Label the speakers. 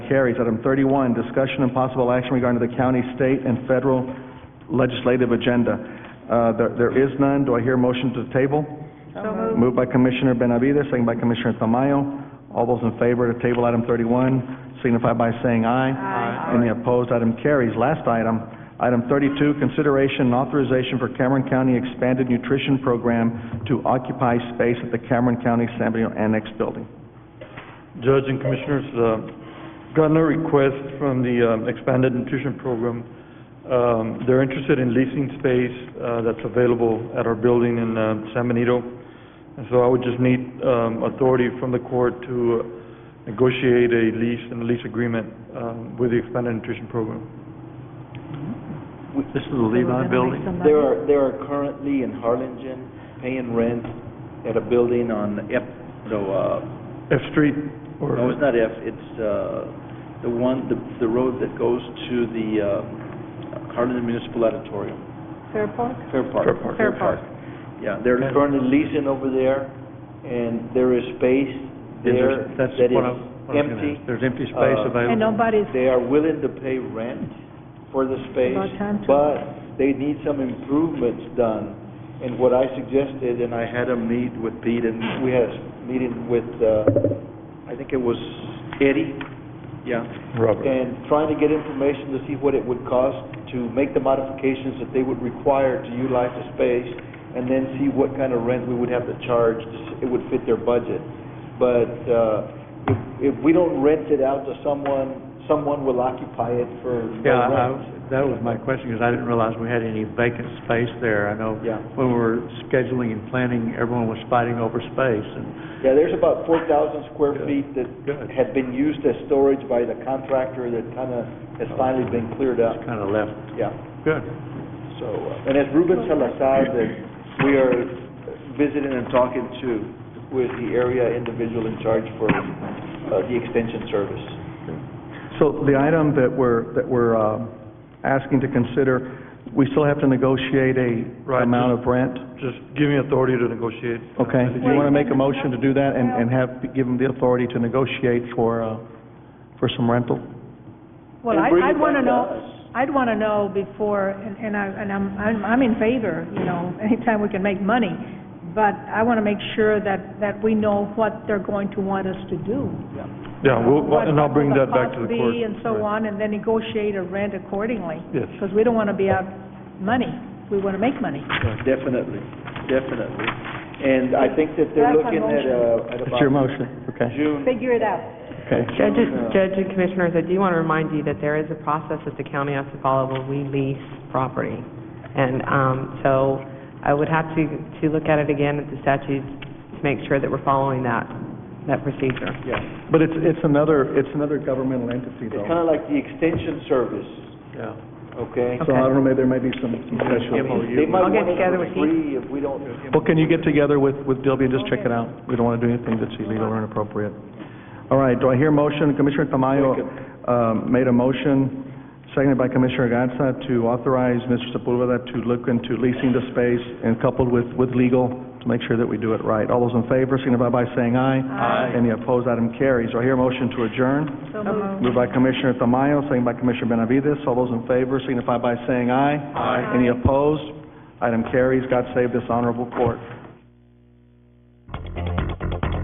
Speaker 1: carries. Item thirty-one, discussion and possible action regarding the county, state, and federal legislative agenda. Uh, there, there is none. Do I hear a motion to table?
Speaker 2: So
Speaker 3: Uh-huh.
Speaker 1: Moved
Speaker 2: moved.
Speaker 1: by Commissioner Benavides, second by Commissioner Tamayo. All those in favor to table item thirty-one signify by saying aye. Aye. Any opposed, item carries. Last item, item thirty-two, consideration and authorization for Cameron County Expanded Nutrition Program to occupy space at the Cameron County San Bernardino Annex Building.
Speaker 3: Judge and Commissioners, uh, gotten a request from the um, expanded nutrition program. Um, They're interested in leasing space uh, that's available at our building in uh, San Benito. And so I would just need um, authority from the court to uh, negotiate a lease and a lease agreement um, with the expanded nutrition program.
Speaker 4: This is the Levi building?
Speaker 5: There are, there are currently in Harlingen paying rent at a building on F, no, uh,
Speaker 3: F Street or...
Speaker 5: no, it's not F, it's, uh, the one, the, the road that goes to the, uh, Harlingen Municipal Auditorium.
Speaker 2: Fair Park?
Speaker 5: Fair Park.
Speaker 3: Fair Park.
Speaker 2: Fair Park.
Speaker 5: Yeah, they're
Speaker 3: Okay.
Speaker 5: currently leasing over there, and there is space there that
Speaker 4: That's
Speaker 5: is
Speaker 4: what I- what I was gonna
Speaker 5: empty.
Speaker 4: ask. There's empty space
Speaker 5: Uh,
Speaker 4: available?
Speaker 2: And nobody's,
Speaker 5: They are willing to pay rent for the
Speaker 2: About time to-
Speaker 5: space, but they need some improvements done. And what I suggested, and I had a meet with Pete, and we had a meeting with, uh, I think it was Eddie, yeah.
Speaker 3: Robert.
Speaker 5: And trying to get information to see what it would cost to make the modifications that they would require to utilize the space, and then see what kind of rent we would have to charge, to s- it would fit their budget. But uh, if, if we don't rent it out to someone, someone will occupy it for no
Speaker 4: Yeah, I-
Speaker 5: rent.
Speaker 4: I- that was my question, because I didn't realize we had any vacant space there. I know
Speaker 5: Yeah.
Speaker 4: when we were scheduling and planning, everyone was fighting over space, and
Speaker 5: Yeah, there's about four thousand square
Speaker 4: Good.
Speaker 5: feet that
Speaker 4: Good.
Speaker 5: had been used as storage by the contractor that kind of has finally been cleared up,
Speaker 4: kind of left.
Speaker 5: yeah.
Speaker 4: Good.
Speaker 5: So, uh, and as Ruben Salazar, that we are visiting and talking to with the area individual in charge for uh, the extension service.
Speaker 1: So the item that we're, that we're, um, asking to consider, we still have to negotiate a
Speaker 3: Right,
Speaker 1: amount
Speaker 3: just-
Speaker 1: of rent?
Speaker 3: Just give me authority to negotiate. uh,
Speaker 1: Okay,
Speaker 3: a
Speaker 1: do
Speaker 3: lease
Speaker 1: you want to make a motion to do that and, and have, give them the authority to negotiate for, uh, for some rental?
Speaker 2: well,
Speaker 5: And
Speaker 2: I-
Speaker 5: bring it
Speaker 2: I'd want to
Speaker 5: back to
Speaker 2: know,
Speaker 5: us.
Speaker 2: I'd want to know before, and and I, and I'm, I'm I'm in favor, you know, anytime we can make money, but I want to make sure that, that we know what they're going to want us to do.
Speaker 3: Yeah, we'll-
Speaker 2: What-
Speaker 3: and I'll bring
Speaker 2: what
Speaker 3: that back to the
Speaker 2: cost
Speaker 3: court.
Speaker 2: be and so
Speaker 3: Right.
Speaker 2: on, and then negotiate a rent accordingly.
Speaker 3: Yes.
Speaker 2: Because we don't want to be out money, we want to make money.
Speaker 5: Definitely, definitely. And I think that they're
Speaker 2: That's a
Speaker 5: looking at, uh, at
Speaker 1: That's your
Speaker 5: about
Speaker 1: motion, okay,
Speaker 5: June.
Speaker 2: Figure it out.
Speaker 1: okay.
Speaker 6: Judges, Judge and Commissioners, I do want to remind you that there is a process that the county has to follow when we lease property. And um, so I would have to, to look at it again at the statutes to make sure that we're following that, that procedure.
Speaker 5: Yeah,
Speaker 1: But it's, it's another, it's another governmental entity
Speaker 5: it's
Speaker 1: though.
Speaker 5: kind of like the extension service,
Speaker 4: Yeah.
Speaker 5: okay?
Speaker 1: So I don't know, maybe there may be some some special.
Speaker 5: They might
Speaker 6: I'll get
Speaker 5: want it
Speaker 6: together
Speaker 5: for
Speaker 6: with you.
Speaker 5: free if we don't,
Speaker 1: Well, can you get together with, with Dilby and just check it out? We don't want to do anything that's illegal or inappropriate. All right, do I hear a motion? Commissioner Tamayo, um, made a motion, seconded by Commissioner Gatsa, to authorize Mr. Sepulveda to look into leasing the space and coupled with, with legal to make sure that we do it right. All those in favor, signify by saying aye. Aye. Any opposed, item carries. Do I hear a motion to adjourn?
Speaker 2: So moved.
Speaker 1: Moved by Commissioner Tamayo, seconded by Commissioner Benavides. All those in favor, signify by saying aye. Aye. Any opposed? Item carries. God save this honorable court.